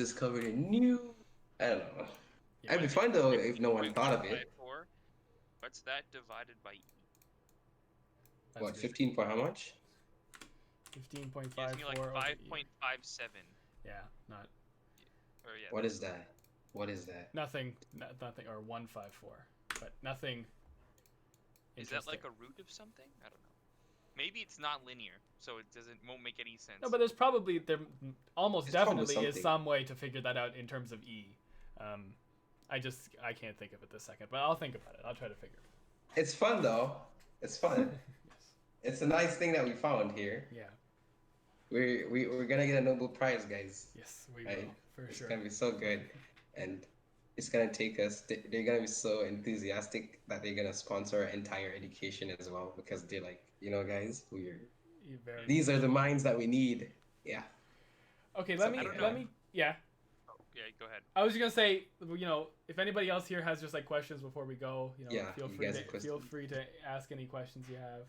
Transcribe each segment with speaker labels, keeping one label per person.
Speaker 1: discovered a new. I don't know.
Speaker 2: Yeah,
Speaker 1: I'd be
Speaker 2: if-
Speaker 1: fine, though,
Speaker 2: if
Speaker 1: if no one
Speaker 2: you
Speaker 1: thought of
Speaker 2: divide
Speaker 1: it.
Speaker 2: Four, what's that divided by? E?
Speaker 3: That's
Speaker 1: what
Speaker 3: good.
Speaker 1: fifteen for how much?
Speaker 3: Fifteen point
Speaker 2: Gives
Speaker 3: five
Speaker 2: me
Speaker 3: four.
Speaker 2: like
Speaker 3: over
Speaker 2: five
Speaker 3: E.
Speaker 2: point five seven.
Speaker 3: Yeah, not
Speaker 2: Or yeah.
Speaker 1: What is that? What is that?
Speaker 3: nothing, not, nothing, or one five four, but nothing.
Speaker 2: Is that like a
Speaker 3: interesting.
Speaker 2: root of something? I don't know. Maybe it's not linear, so it doesn't won't make any sense.
Speaker 3: No, but there's probably there almost
Speaker 1: It's probably
Speaker 3: definitely is
Speaker 1: something.
Speaker 3: some way to figure that out in terms of E. Um, I just I can't think of it this second, but I'll think about it. I'll try to figure. it
Speaker 1: It's fun though. It's fun. It's a nice thing that we found here.
Speaker 3: Yeah.
Speaker 1: We're we, we're gonna get a Nobel Prize, guys.
Speaker 3: Yes, we
Speaker 1: Right.
Speaker 3: will for
Speaker 1: it's
Speaker 3: sure.
Speaker 1: gonna be so good, and it's gonna take us. they- They're gonna be so enthusiastic that they're gonna sponsor our entire education as well because they're like, you know, guys, we're
Speaker 3: You E, very-
Speaker 1: these are the minds that we need. Yeah.
Speaker 3: okay, let me
Speaker 1: I
Speaker 2: don't
Speaker 3: let
Speaker 2: know.
Speaker 3: me yeah.
Speaker 2: yeah, go ahead.
Speaker 3: I was just gonna say, you know, if anybody else here has just like questions before we go, you know,
Speaker 1: Yeah,
Speaker 3: feel
Speaker 1: you
Speaker 3: free
Speaker 1: guys
Speaker 3: to
Speaker 1: have questions.
Speaker 3: feel free to ask any questions you have,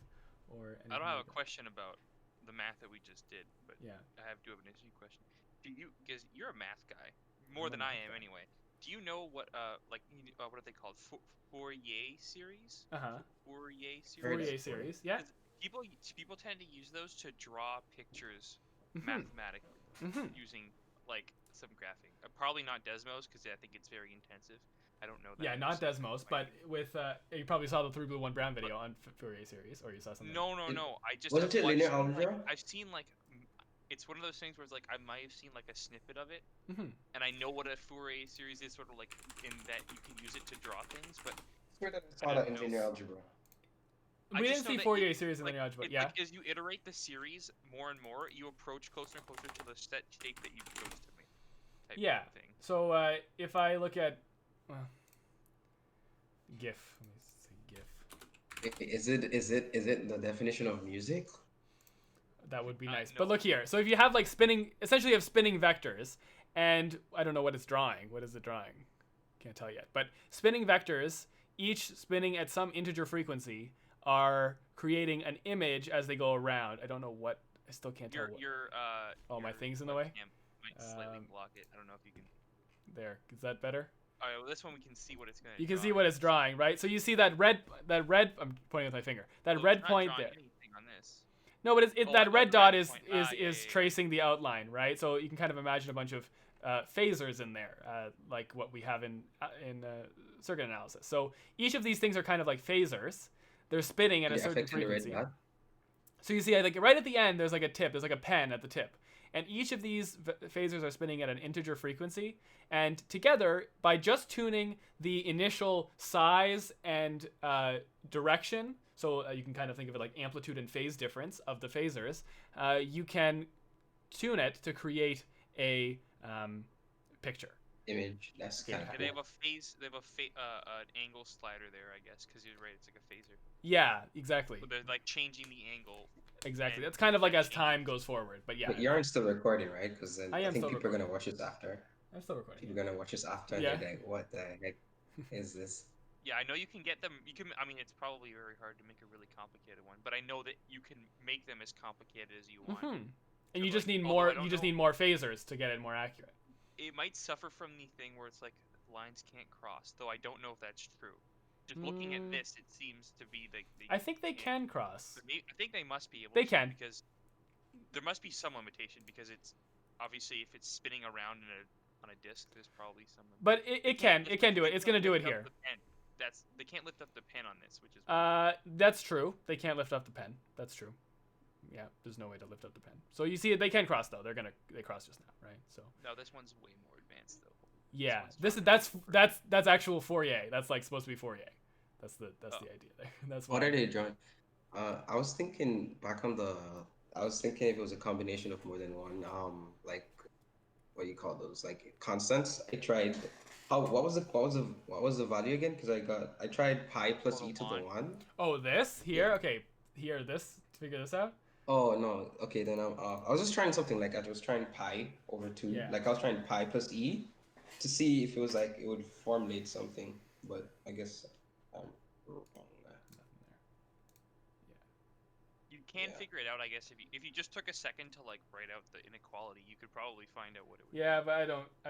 Speaker 3: or anything
Speaker 2: I don't have
Speaker 3: like
Speaker 2: a
Speaker 3: that.
Speaker 2: question about the math that we just did, but
Speaker 3: Yeah.
Speaker 2: I have do have an interesting question. Do you because you're a math guy more
Speaker 3: I'm a
Speaker 2: than I
Speaker 3: math
Speaker 2: am
Speaker 3: guy.
Speaker 2: anyway? Do you know what uh like you- uh, what are they called Fou- Fourier series?
Speaker 3: Uh huh.
Speaker 2: Fourier series.
Speaker 1: Heard of
Speaker 3: Fourier
Speaker 1: it.
Speaker 3: series. Yeah.
Speaker 2: Is- People people tend to use those to draw pictures
Speaker 3: Mhm.
Speaker 1: Mm-hmm.
Speaker 2: mathematically
Speaker 3: Mhm.
Speaker 2: using like some graphing. Uh, probably not Desmos because I think it's very intensive. I don't know that.
Speaker 3: Yeah, not
Speaker 2: so-
Speaker 3: Desmos, but with uh, you probably saw the three blue one brown video on F- Fourier series, or you saw something.
Speaker 2: No, no,
Speaker 1: It-
Speaker 2: no. I just
Speaker 1: wasn't
Speaker 2: I've
Speaker 1: it linear
Speaker 2: watched, like,
Speaker 1: algebra?
Speaker 2: I've seen like m- it's one of those things where it's like I might have seen like a snippet of it,
Speaker 1: Mm-hmm.
Speaker 3: Mhm.
Speaker 2: and I know what a Fourier series is, sort of like in that you can use it to draw things, but
Speaker 1: It's weird that it's
Speaker 2: I
Speaker 1: called
Speaker 2: don't
Speaker 1: an
Speaker 2: know.
Speaker 1: engineer algebra.
Speaker 2: I
Speaker 3: We didn't
Speaker 2: just know
Speaker 3: see
Speaker 2: that
Speaker 3: Fourier
Speaker 2: it-
Speaker 3: series in
Speaker 2: like,
Speaker 3: linear algebra.
Speaker 2: it-
Speaker 3: yeah.
Speaker 2: like, as you iterate the series more and more, you approach closer and closer to the set shape that you chose to make. Type
Speaker 3: Yeah.
Speaker 2: Of thing.
Speaker 3: So uh, if I look at well, GIF, let me say GIF.
Speaker 1: I- Is it is it is it the definition of music?
Speaker 3: That would be
Speaker 2: Uh,
Speaker 3: nice.
Speaker 2: no.
Speaker 3: But look here. So if you have like spinning, essentially you have spinning vectors, and I don't know what it's drawing. What is it drawing? Can't tell yet. But spinning vectors, each spinning at some integer frequency, are creating an image as they go around. I don't know what. I still can't tell.
Speaker 2: Your
Speaker 3: What,
Speaker 2: your uh.
Speaker 3: oh, my
Speaker 2: your
Speaker 3: thing's in the way.
Speaker 2: webcam Might slightly
Speaker 3: Um,
Speaker 2: block it. I don't know if you can.
Speaker 3: There. Is that better?
Speaker 2: All right, well, this one we can see what it's gonna.
Speaker 3: You can
Speaker 2: draw.
Speaker 3: see what it's drawing, right? So you see that red, that red. I'm pointing with my finger. That
Speaker 2: Well, it's
Speaker 3: red
Speaker 2: not
Speaker 3: point
Speaker 2: drawing
Speaker 3: there.
Speaker 2: anything on this.
Speaker 3: No, but it's, it,
Speaker 2: Oh, I
Speaker 3: that
Speaker 2: thought
Speaker 3: red
Speaker 2: the
Speaker 3: dot
Speaker 2: red
Speaker 3: is
Speaker 2: point-
Speaker 3: is
Speaker 2: ah, yeah,
Speaker 3: is
Speaker 2: yeah, yeah.
Speaker 3: tracing the outline, right? So you can kind of imagine a bunch of uh, phasers in there, uh, like what we have in uh, in uh, circuit analysis. So each of these things are kind of like phasers. They're spinning at a
Speaker 1: Yeah,
Speaker 3: certain
Speaker 1: affecting the red
Speaker 3: frequency.
Speaker 1: dot.
Speaker 3: So you see, like right at the end, there's like a tip. There's like a pen at the tip, and each of these v- phasers are spinning at an integer frequency. And together, by just tuning the initial size and uh, direction, so uh, you can kind of think of it like amplitude and phase difference of the phasers, uh, you can tune it to create a um, picture.
Speaker 1: Image. That's
Speaker 3: Yeah.
Speaker 1: kind of
Speaker 2: Yeah,
Speaker 1: cool.
Speaker 2: they have a phase. They have a fa- uh, an angle slider there, I guess, because you're right. It's like a phaser.
Speaker 3: Yeah, exactly,
Speaker 2: So they're like changing the angle.
Speaker 3: exactly.
Speaker 2: and-
Speaker 3: That's kind of like as time goes forward. But yeah,
Speaker 1: But you aren't still recording, right? Because I,
Speaker 3: I am
Speaker 1: think
Speaker 3: still
Speaker 1: people are gonna watch this after.
Speaker 3: I'm still recording.
Speaker 1: People are gonna watch this after. and
Speaker 3: Yeah.
Speaker 1: They're like, what the heck is this?
Speaker 2: Yeah, I know you can get them. You can. I mean, it's probably very hard to make a really complicated one, but I know that you can make them as complicated as you want.
Speaker 3: hmm And
Speaker 2: So,
Speaker 3: you just
Speaker 2: like,
Speaker 3: need
Speaker 2: although I
Speaker 3: more.
Speaker 2: don't
Speaker 3: You just
Speaker 2: know-
Speaker 3: need more phasers to get it more accurate.
Speaker 2: It might suffer from the thing where it's like lines can't cross, though. I don't know if that's true. Just looking
Speaker 3: Mm.
Speaker 2: at this, it seems to be the. the
Speaker 3: I think they
Speaker 2: Yeah.
Speaker 3: can cross.
Speaker 2: But may- I think they must be able.
Speaker 3: They
Speaker 2: to,
Speaker 3: can.
Speaker 2: because there must be some limitation because it's obviously if it's spinning around in a on a disc, there's probably some. lim-
Speaker 3: But it,
Speaker 2: They
Speaker 3: it
Speaker 2: can't
Speaker 3: can.
Speaker 2: lift-
Speaker 3: It can do
Speaker 2: they
Speaker 3: it. It's
Speaker 2: can't
Speaker 3: going to do it
Speaker 2: lift up
Speaker 3: here.
Speaker 2: the pen. That's they can't lift up the pen on this, which is
Speaker 3: Uh, that's true. They can't lift up the pen. That's true. Yeah, there's no way to lift up the pen. So you see, they can cross though. They're gonna they cross just now, right? So
Speaker 2: no. This one's way more advanced though.
Speaker 3: yeah,
Speaker 2: one's
Speaker 3: this is
Speaker 2: fine.
Speaker 3: that's that's that's actual Fourier. That's like supposed to be Fourier. That's the that's
Speaker 2: Oh.
Speaker 3: the idea there. That's
Speaker 1: What
Speaker 3: why-
Speaker 1: are they drawing? Uh, I was thinking back on the. I was thinking if it was a combination of more than one. Um, like, what do you call those? Like constants. I tried. How? What was the? What was the? What was the value again? Because I got. I tried pi plus
Speaker 2: Well,
Speaker 1: e to the
Speaker 2: one.
Speaker 1: one.
Speaker 3: Oh, this here. Okay, here this. to Figure this out.
Speaker 1: Oh no. Okay, then I'm off. I was just trying something like I was trying pi over two.
Speaker 3: Yeah.
Speaker 1: Like I was trying pi plus e, to see if it was like it would formulate something. But I guess I'm wrong.
Speaker 3: Nothing there.
Speaker 2: You can
Speaker 1: Yeah.
Speaker 2: figure it out, I guess. If you if you just took a second to like write out the inequality, you could probably find out what it would. be.
Speaker 3: Yeah, but I don't.